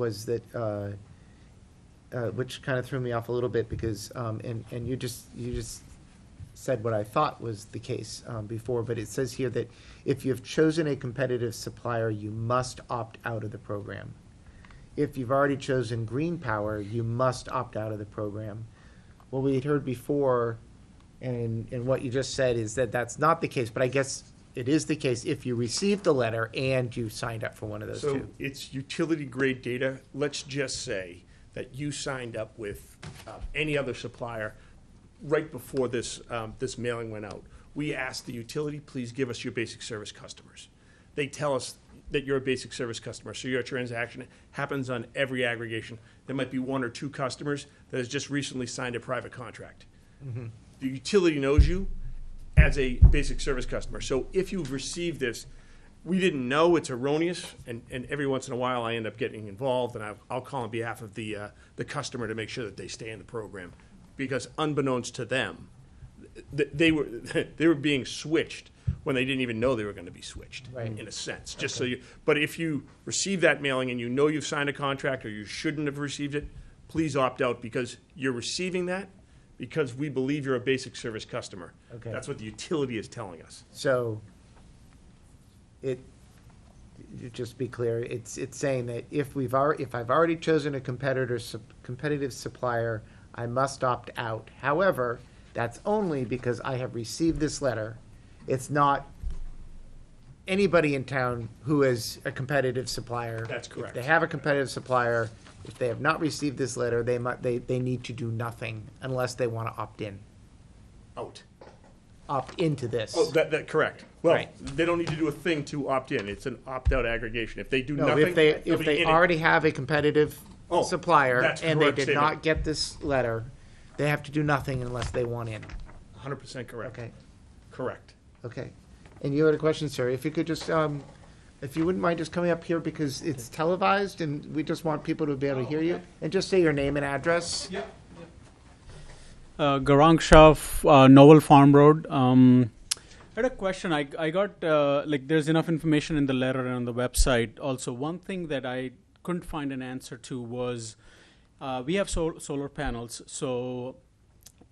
was that, uh, uh, which kind of threw me off a little bit because, um, and, and you just, you just said what I thought was the case um, before, but it says here that if you've chosen a competitive supplier, you must opt out of the program. If you've already chosen green power, you must opt out of the program. What we had heard before, and, and what you just said is that that's not the case, but I guess it is the case if you received the letter and you signed up for one of those So two. it's utility grade data. Let's just say that you signed up with uh, any other supplier right before this, um, this mailing went out. We asked the utility, please give us your basic service customers. They tell us that you're a basic service customer, so your transaction happens on every aggregation. There might be one or two customers that has just recently signed a private contract. Mm-hmm. The utility knows you as a basic service customer. So if you've received this, we didn't know, it's erroneous, and, and every once in a while I end up getting involved, and I'll, I'll call on behalf of the, uh, the customer to make sure that they stay in the program. Because unbeknownst to them, th- they were, they were being switched when they didn't even know they were gonna be switched, Right. in a sense, just so you, but if you receive that mailing and you know you've signed a contract or you shouldn't have received it, please opt out because you're receiving that because we believe you're a basic service customer. Okay. That's what the utility is telling us. So it, you just be clear, it's, it's saying that if we've alre if I've already chosen a competitor, sup- competitive supplier, I must opt out. However, that's only because I have received this letter. It's not anybody in town who is a competitive supplier. That's correct. If they have a competitive supplier, if they have not received this letter, they mu, they, they need to do nothing unless they want to opt in, Out. opt into this. Oh, that, that, correct. Well, Right. they don't need to do a thing to opt in. It's an opt-out aggregation. If they do No, nothing. if they, they'll if be they in it. already have a competitive Oh, supplier that's and they correct did statement. not get this letter, they have to do nothing unless they want in. Hundred percent correct. Okay, Correct. okay. And you had a question, sir. If you could just, um, if you wouldn't mind just coming up here because it's televised and we just want people to be able to hear you. And just say your name and address. Uh, Garang Shah, f- uh, Novel Farm Road. Um, I had a question. I, I got, uh, like, there's enough information in the letter and on the website. Also, one thing that I couldn't find an answer to was uh, we have sol- solar panels. So,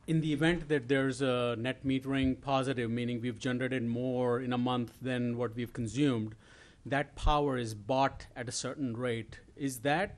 in the event that there's a net metering positive, meaning we've generated more in a month than what we've consumed, that power is bought at a certain rate. Is that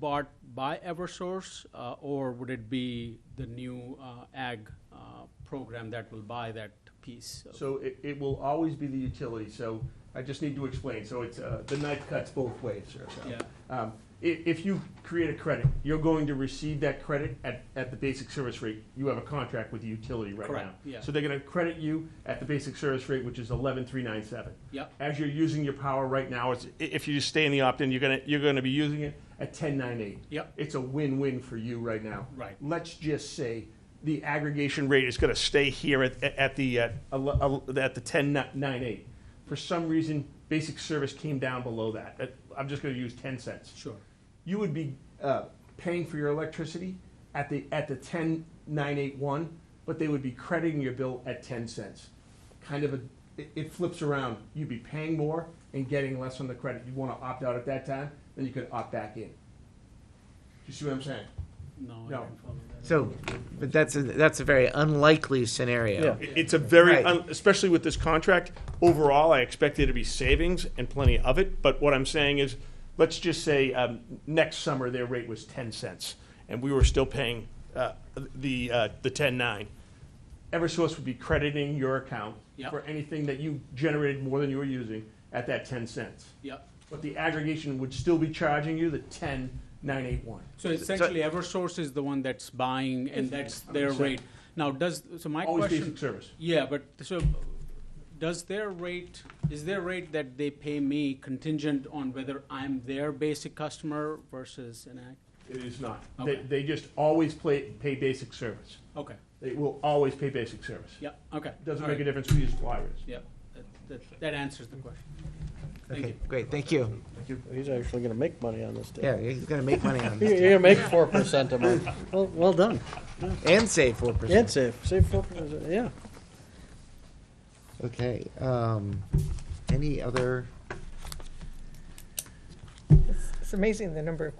bought by Eversource, uh, or would it be the new uh, ag uh, program that will buy that piece? of- So it, it will always be the utility, so I just need to explain, so it's, uh, the knife cuts both ways, sir, so. Yeah. Um, i- if you create a credit, you're going to receive that credit at, at the basic service rate, you have a contract with the utility right now. Correct, yeah. So they're gonna credit you at the basic service rate, which is eleven three nine seven. Yep. As you're using your power right now, it's, i- if you just stay in the opt-in, you're gonna, you're gonna be using it at ten nine eight. Yep. It's a win-win for you right now. Right. Let's just say the aggregation rate is going to stay here at, at the, uh, ele- ele- at the ten nine eight. For some reason, basic service came down below that. That- I'm just going to use ten cents. Sure. You would be, uh, paying for your electricity at the, at the ten nine eight one, but they would be crediting your bill at ten cents. Kind of a, it, it flips around. You'd be paying more and getting less on the credit. You'd want to opt out at that time, then you could opt back in. Do you see what I'm saying? No, I No. didn't follow that. So, but that's, a that's a very unlikely scenario. It- It's a very, Right. un- especially with this contract, overall, I expect there to be savings and plenty of it. But what I'm saying is, let's just say um, next summer, their rate was 10 cents, and we were still paying uh, the, uh, the 10.9. Eversource would be crediting your account Yep. for anything that you generated more than you were using at that 10 cents. Yep. But the aggregation would still be charging you the 10.981. So essentially, EverSource is the one that's buying, and that's their Understand. rate. Now, does so my Always question? basic service. Yeah, but so does their rate is their rate that they pay me contingent on whether I'm their basic customer versus an ag? It is not. They, Okay. they just always play, pay basic service. Okay. They will always pay basic service. Yeah. Okay. Doesn't All make a right. difference who your supplier is. Yeah. That, that, that answers the question. Thank Okay, you. great, thank you. He's actually gonna make money on this Yeah, deal. he's gonna make money on You're this gonna make four percent a month. Well, well done. and save four percent. And save, save four percent, yeah. Okay, um, any other? It's amazing the number of